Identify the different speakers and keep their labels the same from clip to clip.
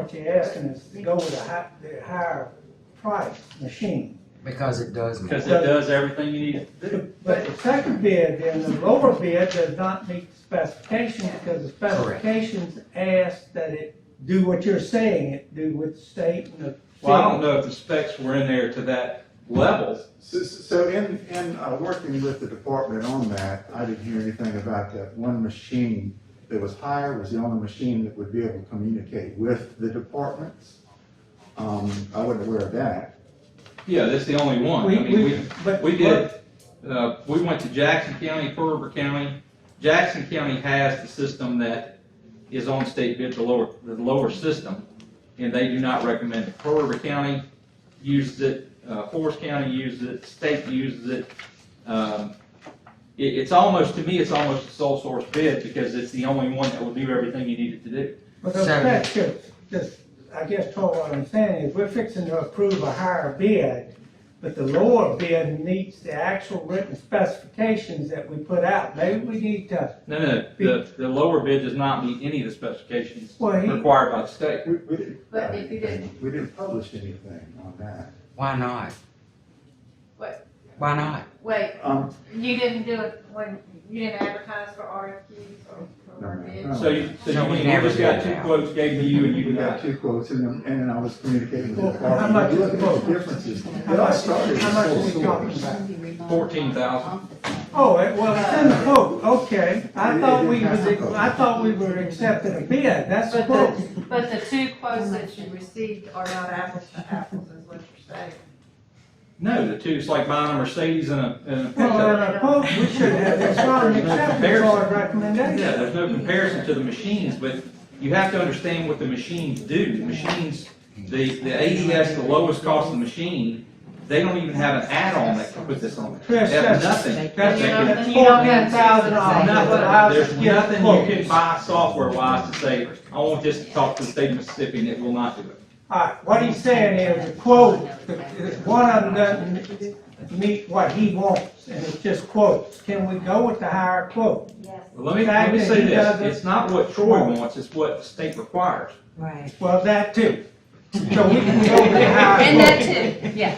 Speaker 1: what you're asking is to go with a hi, the higher price machine.
Speaker 2: because it does.
Speaker 3: Because it does everything you need it to do.
Speaker 1: But the second bid, then the lower bid does not meet specifications because the specifications ask that it do what you're saying it do with the state and the.
Speaker 3: Well, I don't know if the specs were in there to that level.
Speaker 4: So, so in, in, uh, working with the department on that, I didn't hear anything about that one machine that was higher was the only machine that would be able to communicate with the departments. Um, I wasn't aware of that.
Speaker 3: Yeah, that's the only one.
Speaker 1: We,
Speaker 3: I mean,
Speaker 1: we,
Speaker 3: we,
Speaker 1: but.
Speaker 3: we did, uh, we went to Jackson County, Pearl River County. Jackson County has the system that is on state bid, the lower, the lower system. And they do not recommend it. Pearl River County uses it, uh, Forest County uses it, state uses it. Um, it, it's almost, to me, it's almost a sole source bid because it's the only one that will do everything you need it to do.
Speaker 1: But the
Speaker 2: So-
Speaker 1: fact is, just, I guess, Troy, what I'm saying is, we're fixing to approve a higher bid, but the lower bid meets the actual written specifications that we put out. Maybe we need to,
Speaker 3: No, no, the, the lower bid does not meet any of the specifications
Speaker 1: Well, he-
Speaker 3: required by the state.
Speaker 4: We, we didn't.
Speaker 5: But if you didn't-
Speaker 4: We didn't publish anything on that.
Speaker 2: Why not?
Speaker 5: What?
Speaker 2: Why not?
Speaker 5: Wait,
Speaker 4: Um,
Speaker 5: you didn't do it when, you didn't advertise for RFQs or,
Speaker 4: No,
Speaker 5: or
Speaker 4: no,
Speaker 5: bids?
Speaker 3: So you, so
Speaker 2: No,
Speaker 3: you
Speaker 2: we
Speaker 3: mean you
Speaker 2: never
Speaker 3: just got
Speaker 2: did
Speaker 3: two
Speaker 2: that.
Speaker 3: quotes gave to you and you
Speaker 4: we
Speaker 3: denied
Speaker 4: got
Speaker 3: it?
Speaker 4: two quotes and, then- and then I was communicating with the
Speaker 1: Well, how
Speaker 4: department.
Speaker 1: much
Speaker 4: You
Speaker 1: is
Speaker 4: look at
Speaker 1: the quote?
Speaker 4: the differences.
Speaker 1: How
Speaker 4: It all
Speaker 1: much-
Speaker 4: started as
Speaker 1: how much are
Speaker 4: sole
Speaker 1: we
Speaker 4: source.
Speaker 1: talking about?
Speaker 3: Fourteen thousand.
Speaker 1: oh, it- well, it's in the quote, okay. I
Speaker 4: It-
Speaker 1: thought
Speaker 4: it
Speaker 1: we
Speaker 4: didn't
Speaker 1: was,
Speaker 4: have a quote.
Speaker 1: I thought we were accepting a bid, that's the
Speaker 5: But
Speaker 1: quote.
Speaker 5: the, but the two quotes that you received are not apples to apples, is what you're saying.
Speaker 3: No, the two, it's like buying a Mercedes and a, and a
Speaker 1: Well, in
Speaker 3: pickup.
Speaker 1: a quote, we should have, it's not an acceptance or a
Speaker 3: Yeah,
Speaker 1: recommendation.
Speaker 3: there's no comparison to the machines, but you have to understand what the machines do. The machines, the, the ADS, the lowest cost of the machine, they don't even have an add-on that can put this on it. They
Speaker 1: Chris,
Speaker 3: have
Speaker 1: that's-
Speaker 3: nothing.
Speaker 1: That's,
Speaker 5: You don't-
Speaker 1: that's
Speaker 5: you don't have
Speaker 1: fourteen thousand dollars.
Speaker 3: Nothing, there's nothing you can buy software wise to say, I want this to talk to the state of Mississippi and it will not do it.
Speaker 1: All right, what he's saying is the quote, the- one of them doesn't meet what he wants, and it's just quotes. Can we go with the higher quote?
Speaker 6: Yes,
Speaker 3: Well, Let me, let me say this, it's not what Troy wants, it's what the state requires.
Speaker 6: right.
Speaker 1: Well, that too. So we can go with the higher
Speaker 5: And that
Speaker 1: quote.
Speaker 5: too, yeah.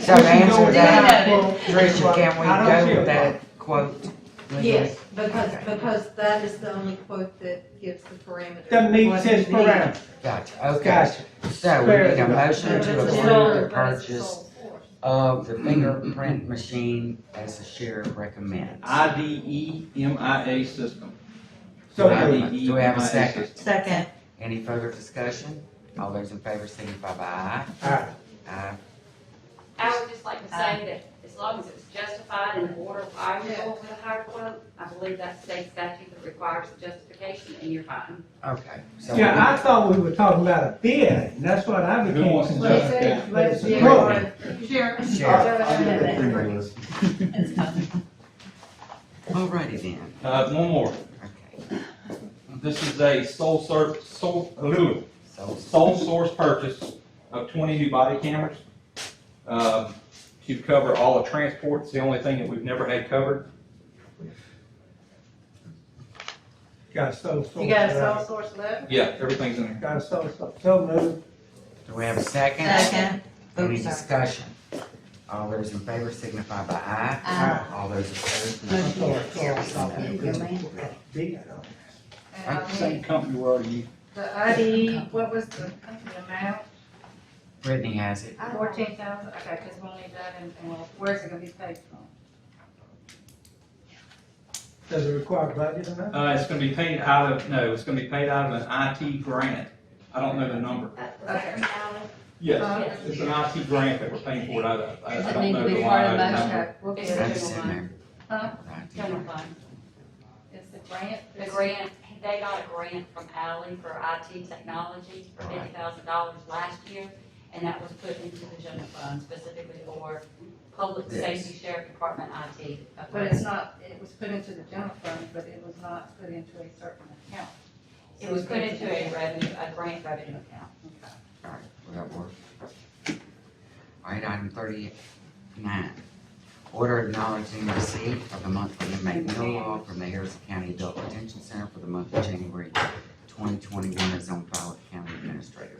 Speaker 2: So to answer that,
Speaker 1: I
Speaker 2: Tricia, can
Speaker 1: don't
Speaker 2: we
Speaker 1: see
Speaker 2: go
Speaker 1: a
Speaker 2: with that quote? legally?
Speaker 5: Yes, because, because that is the only quote that gives the parameters.
Speaker 1: That meets his parameters.
Speaker 2: Gotcha, okay.
Speaker 1: Gotcha.
Speaker 2: So we need a
Speaker 1: Fair.
Speaker 2: motion to
Speaker 5: But it's
Speaker 2: approve the
Speaker 5: solar, but it's a
Speaker 2: purchase
Speaker 5: sole source.
Speaker 2: of the fingerprint machine as the sheriff recommends.
Speaker 3: E IDEMIA system. E
Speaker 1: So
Speaker 2: Right.
Speaker 1: moved.
Speaker 3: IDEMIA
Speaker 2: Do we have a second?
Speaker 3: system.
Speaker 6: Second.
Speaker 2: Any further discussion? All those in favor signify by aye.
Speaker 1: All right.
Speaker 2: Aye.
Speaker 6: I would just like to say that as long as it's justified in the order of arguable with a higher quote, I believe that's state statute that requires the justification and you're fine.
Speaker 2: Okay. so we-
Speaker 1: Yeah, I thought we were talking about a bid, and that's what I
Speaker 3: Who
Speaker 1: became.
Speaker 3: wants to
Speaker 5: But it's,
Speaker 1: confused.
Speaker 5: a- but it's. the-
Speaker 1: Well-
Speaker 5: Sharon.
Speaker 2: Sharon.
Speaker 4: I- I did that thing was-
Speaker 2: Alrighty then,
Speaker 3: Uh, one more,
Speaker 2: okay.
Speaker 3: this is a sole ser, sole, uh,
Speaker 2: So,
Speaker 3: sole source purchase of twenty new body cameras. um, To cover all of transport, it's the only thing that we've never had covered.
Speaker 1: Got so, so.
Speaker 5: You got a sole source letter?
Speaker 3: Yeah, everything's in there.
Speaker 1: Got so, so, so moved.
Speaker 2: do we have a second?
Speaker 6: Second.
Speaker 2: Any
Speaker 6: Oops, sorry.
Speaker 2: discussion? All those in favor signify by aye.
Speaker 1: Aye.
Speaker 2: All those opposed,
Speaker 1: I'm
Speaker 2: no.
Speaker 1: sorry, sorry, sorry. Bid on it.
Speaker 5: And I
Speaker 3: Same
Speaker 5: mean,
Speaker 3: company we're already using.
Speaker 5: the ID, what was the, the amount?
Speaker 2: Brittany has it.
Speaker 5: Fourteen thousand, okay, because we'll need that and, and we'll- where's it gonna be paid from?
Speaker 1: Does it require budget or not?
Speaker 3: Uh, it's gonna be paid out of, no, it's gonna be paid out of an IT grant. I don't know the number.
Speaker 5: Uh,
Speaker 3: Yes, it's an IT grant that we're paying for it out of. I- I don't know the line item number.
Speaker 5: Okay, we'll get
Speaker 2: That's
Speaker 5: it.
Speaker 2: in there.
Speaker 5: Huh?
Speaker 2: Right.
Speaker 6: General fund.
Speaker 5: It's the grant,
Speaker 6: The grant, they got a grant from Alley for IT technology for fifty thousand dollars last year, and that was put into the general fund specifically for public
Speaker 2: Yes.
Speaker 6: safety, sheriff department, IT.
Speaker 5: But it's not, it was put into the general fund, but it was not put into a certain account.
Speaker 6: It was put into a revenue, a grant revenue account.
Speaker 5: Okay.
Speaker 2: Alright, will that work? Alright, item thirty-nine. Order acknowledging receipt of the monthly inmate meal law from the Harrison County Adult Detention Center for the month of January twenty twenty-one is on file with the county administrator.